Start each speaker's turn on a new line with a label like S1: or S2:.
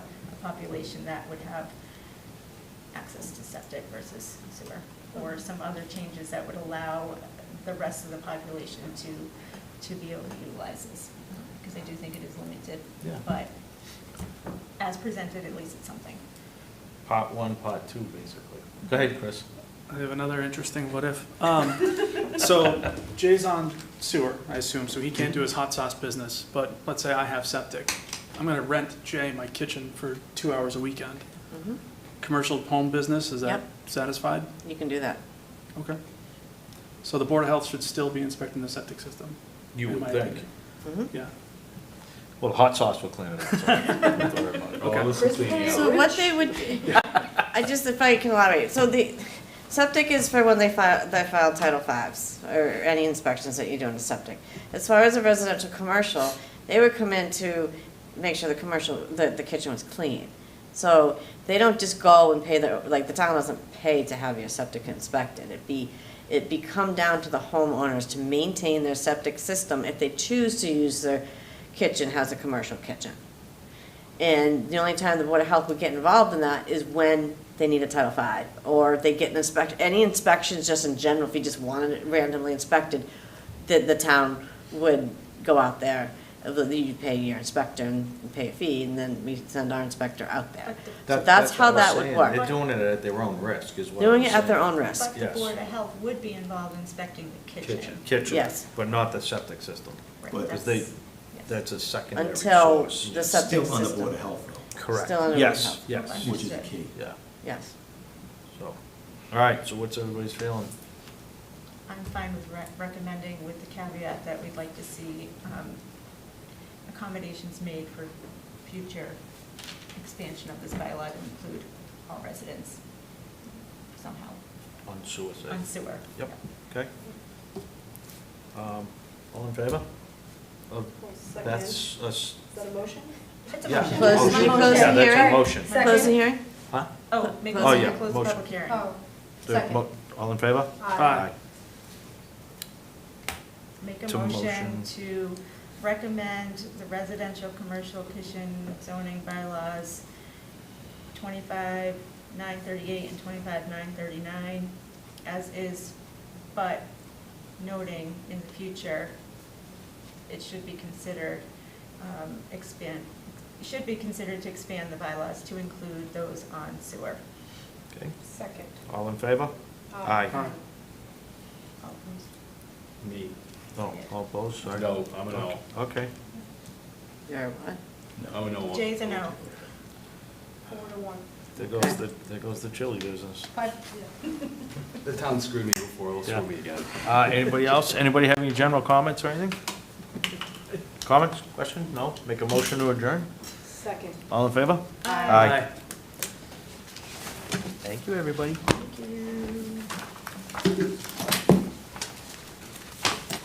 S1: population that would have access to septic versus sewer, or some other changes that would allow the rest of the population to, to be able to utilize this, because I do think it is limited.
S2: Yeah.
S1: But as presented, at least it's something.
S2: Pot one, pot two, basically. Go ahead, Chris.
S3: I have another interesting what if. Um, so Jay's on sewer, I assume, so he can't do his hot sauce business, but let's say I have septic. I'm gonna rent Jay my kitchen for two hours a weekend.
S4: Mhm.
S3: Commercial home business, is that
S4: Yep.
S3: satisfied?
S4: You can do that.
S3: Okay. So the Board of Health should still be inspecting the septic system?
S2: You
S3: in
S2: would
S3: my
S2: think.
S3: opinion.
S4: Mm-hmm.
S3: Yeah.
S2: Well, hot sauce will clean it up. so don't worry about it.
S3: Okay.
S2: Chris, yeah.
S4: So what they would, I just, if I can elaborate, so the, septic is for when they file, they file Title Fives, or any inspections that you do in a septic. As far as a residential commercial, they would come in to make sure the commercial, the, the kitchen was clean. So they don't just go and pay the, like, the town doesn't pay to have your septic inspected. It'd be, it'd be come down to the homeowners to maintain their septic system if they choose to use their kitchen as a commercial kitchen. And the only time the Board of Health would get involved in that is when they need a Title V, or they get an inspect, any inspections just in general, if you just wanted it randomly inspected, the, the town would go out there, uh, you pay your inspector and pay a fee, and then we send our inspector out there.
S1: But the-
S4: So
S2: That-
S4: that's how
S2: what I'm
S4: that would
S2: saying.
S4: work.
S2: They're doing it at their own risk, is what I'm
S4: Doing it at their
S2: saying.
S4: own risk.
S1: But the
S2: Yes.
S1: Board of Health would be involved inspecting the kitchen.
S2: Kitchen.
S4: Yes.
S2: But not the septic system.
S1: Right,
S2: Because they,
S1: that's- yes.
S2: that's a secondary
S4: Until
S2: source.
S4: the septic
S5: Still on the Board of
S4: system,
S5: Health, though,
S2: Correct.
S4: Still under
S2: Yes,
S4: rehab.
S2: yes,
S1: Okay.
S5: which is the key.
S2: yeah,
S4: yes.
S2: so. All right, so what's everybody's feeling?
S1: I'm fine with re- recommending with the caveat that we'd like to see um, accommodations made for future expansion of this bylaw to include all residents somehow
S2: On suicide?
S1: on sewer.
S2: Yep, okay. Um, All in favor? Of- That's, us.
S6: Is that a motion?
S1: It's a
S2: Yeah.
S1: motion.
S4: Close-
S1: It's a
S4: should we
S1: motion.
S4: close the
S2: Yeah, that's a
S4: hearing?
S2: motion.
S1: Second.
S4: Close the hearing?
S2: Huh?
S1: Oh, make
S4: Oh,
S1: motion
S2: yeah,
S1: to close the
S2: motion.
S1: public hearing.
S6: Oh,
S2: The
S6: second.
S2: mo- All in favor?
S6: Aye.
S1: Make a
S2: To
S1: motion
S2: motion.
S1: to recommend the residential commercial kitchen zoning bylaws twenty-five nine thirty-eight and twenty-five nine thirty-nine as is, but noting in the future, it should be considered, um, expand, it should be considered to expand the bylaws to include those on sewer.
S2: Okay,
S6: Second.
S2: all in favor?
S6: Aye.
S2: Aye.
S1: All opposed?
S7: Me.
S2: No, all opposed, sorry.
S7: No, I'm a no.
S2: Okay,
S4: Or what?
S7: I'm a no.
S1: Jay's a no.
S6: Four to one.
S2: there goes the, there goes the chili business.
S6: Five, yeah.
S7: The town screwed me before, it'll
S2: Yeah.
S7: screw me again.
S2: Uh, anybody else, anybody have any general comments or anything? Comments, questions? No? Make a motion to adjourn?
S6: Second.
S2: All in favor?
S3: Aye.
S2: Thank you, everybody.
S1: Thank you.